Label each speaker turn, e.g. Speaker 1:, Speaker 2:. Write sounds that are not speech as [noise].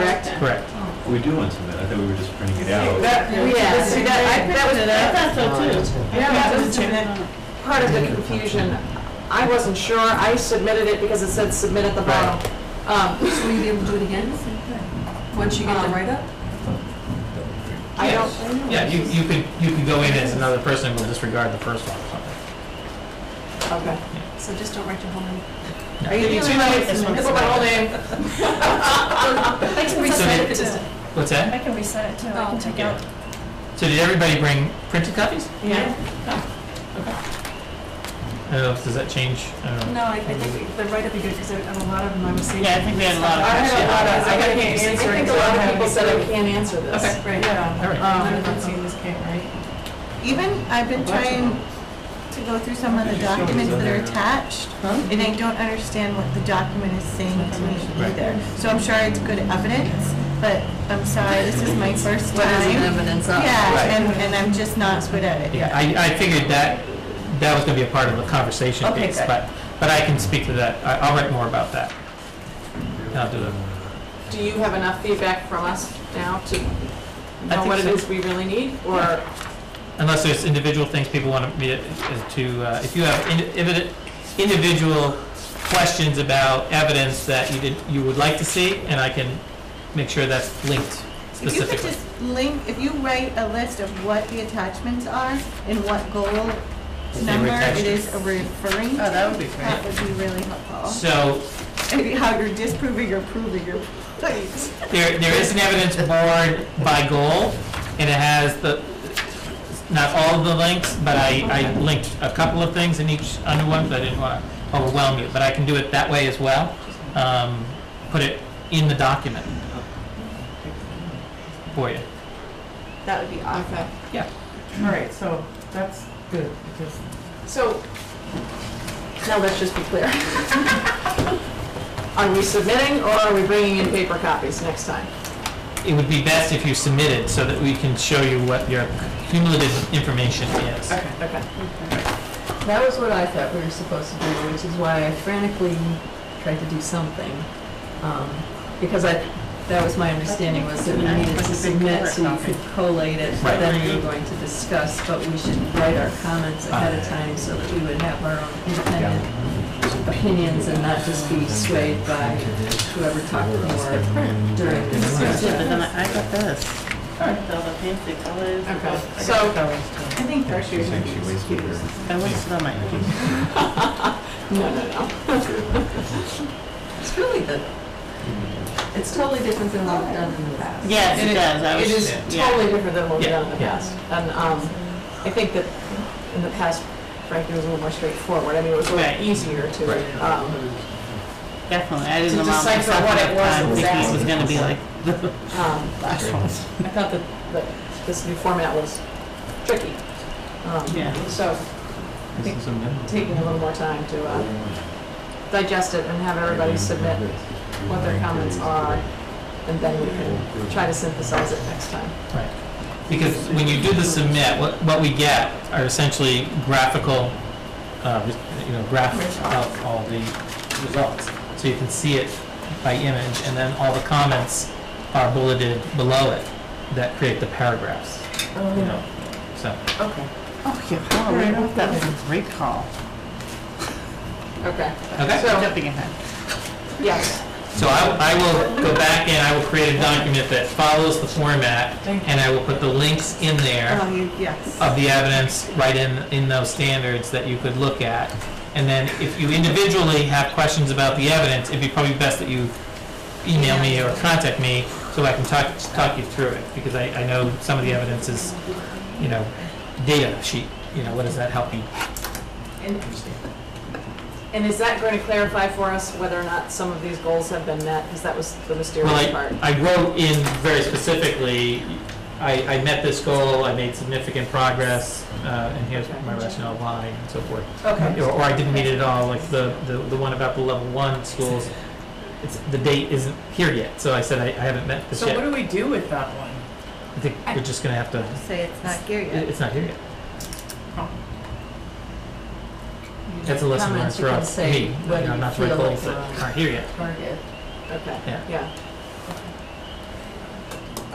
Speaker 1: Correct.
Speaker 2: We do want some, of that. I thought we were just printing it out.
Speaker 3: That,
Speaker 4: Yeah.
Speaker 3: see, that, I- that was, I
Speaker 4: I thought so too.
Speaker 3: thought- yeah, that was part of the confusion. I wasn't sure, I submitted it because it said submit at the bottom. Um,
Speaker 5: So will you be able to do it again? Once you get the write-up?
Speaker 3: I don't,
Speaker 1: Yeah, you, you could, you could go in as another person and we'll disregard the first one or something.
Speaker 3: okay.
Speaker 5: So just don't write your whole name.
Speaker 3: Are you using my, this is my whole name?
Speaker 5: Thanks for
Speaker 1: So
Speaker 5: resending
Speaker 1: did-
Speaker 5: it to-
Speaker 1: What's that?
Speaker 6: I can reset it too, I
Speaker 5: Oh,
Speaker 6: can take
Speaker 1: okay.
Speaker 6: out.
Speaker 1: So did everybody bring printed copies?
Speaker 3: Yeah.
Speaker 1: I don't know, does that change? I don't know.
Speaker 5: No, I I think the write-up would be good because I have a lot of them I was seeing.
Speaker 6: Yeah, I think we had a lot
Speaker 3: I
Speaker 6: of
Speaker 3: had a lot of, I got,
Speaker 5: Yeah.
Speaker 3: I think a lot of people said I can't answer this.
Speaker 1: Okay.
Speaker 5: Right.
Speaker 3: Yeah.
Speaker 1: All right.
Speaker 5: None of
Speaker 3: Um,
Speaker 5: them seeing this came, right?
Speaker 6: Even, I've been trying to go through some of the documents that are attached, and I don't understand what the document is saying to me
Speaker 1: Right.
Speaker 6: either. So I'm sure it's good evidence, but I'm sorry, this is
Speaker 1: [laughs]
Speaker 6: my first
Speaker 4: What is an
Speaker 6: time.
Speaker 4: evidence of?
Speaker 1: Right.
Speaker 6: Yeah, and, and I'm just not good at it.
Speaker 1: Yeah, I, I figured that, that was gonna be a part of the conversation
Speaker 6: Okay,
Speaker 1: piece,
Speaker 6: good.
Speaker 1: but, but I can speak to that. I, I'll write more about that. I'll do it.
Speaker 3: Do you have enough feedback from us now to
Speaker 1: I
Speaker 3: know
Speaker 1: think
Speaker 3: what it
Speaker 1: so.
Speaker 3: is we really need? Or,
Speaker 1: Unless there's individual things people want me to, to, uh, if you have in- evid- individual questions about evidence that you did, you would like to see, and I can make sure that's linked
Speaker 6: If you could
Speaker 1: specifically.
Speaker 6: just link, if you write a list of what the attachments are and what goal
Speaker 1: They were
Speaker 6: number
Speaker 1: attached.
Speaker 6: it is referring
Speaker 4: Oh,
Speaker 6: to,
Speaker 4: that would be
Speaker 6: that
Speaker 4: great.
Speaker 6: would be really helpful.
Speaker 1: So,
Speaker 6: And how you're disproving or proving your [laughs] point.
Speaker 1: there, there is an evidence board by goal, and it has the, not all of the links, but I, I linked a couple of things in each under one, but I didn't want to overwhelm you, but I can do it that way as well. Um, Put it in the document for you.
Speaker 3: that would be awesome.
Speaker 4: All right, so that's good, because
Speaker 3: So, now let's just be clear. Are we submitting or are we bringing in paper copies next time?
Speaker 1: It would be best if you submitted so that we can show you what your cumulative information is.
Speaker 3: Okay. Okay.
Speaker 4: that was what I thought we were supposed to do, which is why I frantically tried to do something. Um, Because I, that was my understanding was that we needed to submit so you could collate it, but then we were going to discuss, but we should write our comments ahead of time so that we would have our own independent opinions and not just be swayed by whoever talked more during the discussion.
Speaker 7: I got this. All the fancy colors.
Speaker 3: Okay. So,
Speaker 6: I think first year's are
Speaker 7: I wish it on my.
Speaker 3: no, no, no.
Speaker 4: It's really good. It's totally different than what we've done in the past.
Speaker 7: Yes,
Speaker 3: It
Speaker 7: it
Speaker 3: is-
Speaker 7: does. I
Speaker 3: It
Speaker 7: was-
Speaker 3: is
Speaker 7: yeah.
Speaker 3: totally different than what we've
Speaker 1: Yeah,
Speaker 3: done in the
Speaker 1: yeah.
Speaker 3: past. And um, I think that in the past, frankly, it was a little more straightforward. I mean, it was a
Speaker 7: Right.
Speaker 3: little easier to, um,
Speaker 7: Definitely. I
Speaker 3: To
Speaker 7: didn't allow myself
Speaker 3: decipher what it
Speaker 7: enough
Speaker 3: was that was
Speaker 7: time thinking it
Speaker 3: asked.
Speaker 7: was gonna be like [laughs] the
Speaker 3: um,
Speaker 7: last ones.
Speaker 3: I thought that, that this new format was tricky. Um,
Speaker 7: Yeah.
Speaker 3: So I think taking a little more time to uh, digest it and have everybody
Speaker 7: Mm-hmm.
Speaker 3: submit what their comments are, and then we can try to synthesize it next time.
Speaker 1: Right. Because when you do the submit, what, what we get are essentially graphical, uh, you know, graphics of all the results. So you can see it by image, and then all the comments are bulleted below it that create the paragraphs,
Speaker 3: Mm-hmm.
Speaker 1: you know, so.
Speaker 4: Okay.
Speaker 7: Oh, yeah. Oh, right off. That was a great call.
Speaker 3: Okay,
Speaker 1: Okay.
Speaker 3: So-
Speaker 7: Jumping ahead.
Speaker 3: yes.
Speaker 1: So I, I will go back and I will create a document that follows the format, and I will put the links in there.
Speaker 6: Oh, you, yes.
Speaker 1: of the evidence right in, in those standards that you could look at. And then if you individually have questions about the evidence, it'd be probably best that you email me or contact me so I can talk, talk you through it, because I, I know some of the evidence is, you know, data sheet, you know, what does that help you?
Speaker 3: And- And is that going to clarify for us whether or not some of these goals have been met? Because that was the
Speaker 1: Well,
Speaker 3: mysterious part.
Speaker 1: I, I wrote in very specifically, I, I met this goal, I made significant progress, uh, and here's my rationale why, and so forth.
Speaker 3: Okay,
Speaker 1: or, or I didn't meet it at all, like the, the, the one about the level one schools, it's, the date isn't here yet, so I said I, I haven't met this
Speaker 4: So what
Speaker 1: yet.
Speaker 4: do we do with that one?
Speaker 1: I think we're just gonna have to,
Speaker 6: Say it's not here
Speaker 1: it-
Speaker 6: yet.
Speaker 1: it's not here yet.
Speaker 4: Oh.
Speaker 1: That's a lesson learned
Speaker 4: Comments, you
Speaker 1: for
Speaker 4: can
Speaker 1: us,
Speaker 4: say
Speaker 1: me, you
Speaker 4: whether
Speaker 1: know,
Speaker 4: you
Speaker 1: not for my
Speaker 4: feel like
Speaker 1: goals that
Speaker 4: we're on
Speaker 1: aren't here yet.
Speaker 4: target.
Speaker 3: okay,
Speaker 1: Yeah.
Speaker 3: yeah.